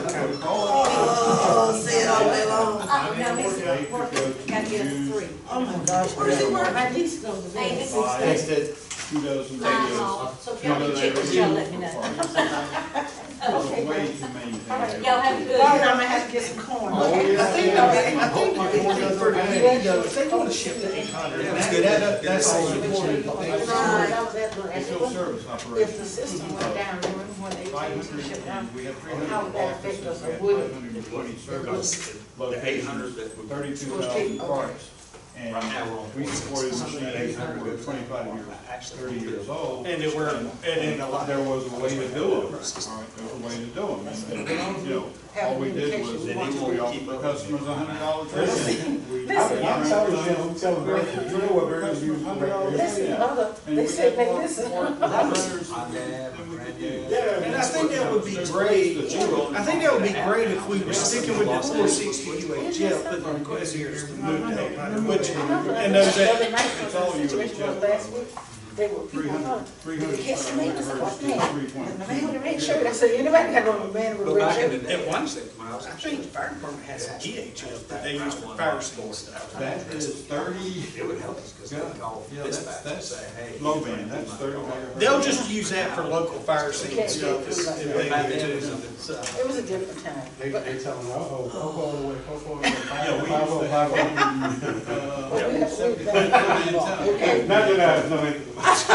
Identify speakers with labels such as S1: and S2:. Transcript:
S1: Oh my gosh.
S2: Where does he work?
S1: I think it's over there.
S2: Hey, this is-
S3: It's
S2: It's
S3: the kudos and
S2: Mine's
S3: videos.
S2: off, so if y'all can check this, y'all let me know.
S3: There's a way to maintain it.
S2: Y'all have a good.
S1: Well, now I'm gonna have to get some corn.
S3: Oh, yeah.
S4: I think, I think, I think they for the windows, they wanna ship to eight hundred.
S3: Yeah, it's good. That- that's all you
S4: important.
S1: That was that
S3: It's still
S1: one.
S3: service
S1: If
S3: operation.
S1: the system went down, there wasn't one
S3: Five
S1: AT&T
S3: hundred,
S1: shut down.
S3: we have three
S1: How
S3: hundred
S1: would that affect
S3: offices,
S1: us?
S3: we have
S1: It wouldn't.
S3: five hundred and twenty service
S1: Because
S5: The eight hundred
S3: locations,
S5: that we, right
S3: thirty-two thousand parts.
S5: now,
S3: And
S5: we're on.
S3: we supported machines that were twenty-five years, thirty years old.
S5: And it were, and in a lot.
S3: There was a way to do it, all right, there was a way to do it. And, you know, all we did was, we offered the customers a hundred dollars.
S4: I'm sorry, Jim, tell them, you know what burgers you.
S1: This is another, they said, they listen.
S4: And I think that would be great, I think that would be great if we were sticking with the four sixty UHF, but the request here is to move to eight hundred, which,
S1: I remember
S4: and those
S1: the
S4: that,
S1: other night, when
S3: all
S1: the
S3: you
S1: situation
S3: would
S1: was
S3: get.
S1: last week, they were
S3: Three
S1: people, huh?
S3: hundred, three hundred.
S1: Catch the man, I said, what the hell? And the man with the red shirt, I said, anybody got on a man with a
S5: But
S1: red
S5: back in the
S1: shirt?
S5: day.
S4: At
S5: When
S4: one
S5: I was
S4: I
S5: in
S4: think the
S5: church,
S4: fire department has a GHF that they use for fire scene stuff.
S3: That is thirty,
S5: It would help us, cause they
S3: Yeah.
S5: call
S3: Yeah, that's-
S5: dispatch and
S3: that's
S5: say, hey.
S3: low band, that's thirty.
S4: They'll just use that for local fire scene stuff if
S5: If they
S4: they
S5: do
S4: do too.
S5: something, so.
S1: It was a different time.
S6: They, they tell them, oh, oh, go all the way, go all the way.
S3: Yeah, we
S6: Five oh
S3: used to have,
S6: five
S3: uh,
S1: But we have- we've done it.
S6: oh. Not that I was, no, it-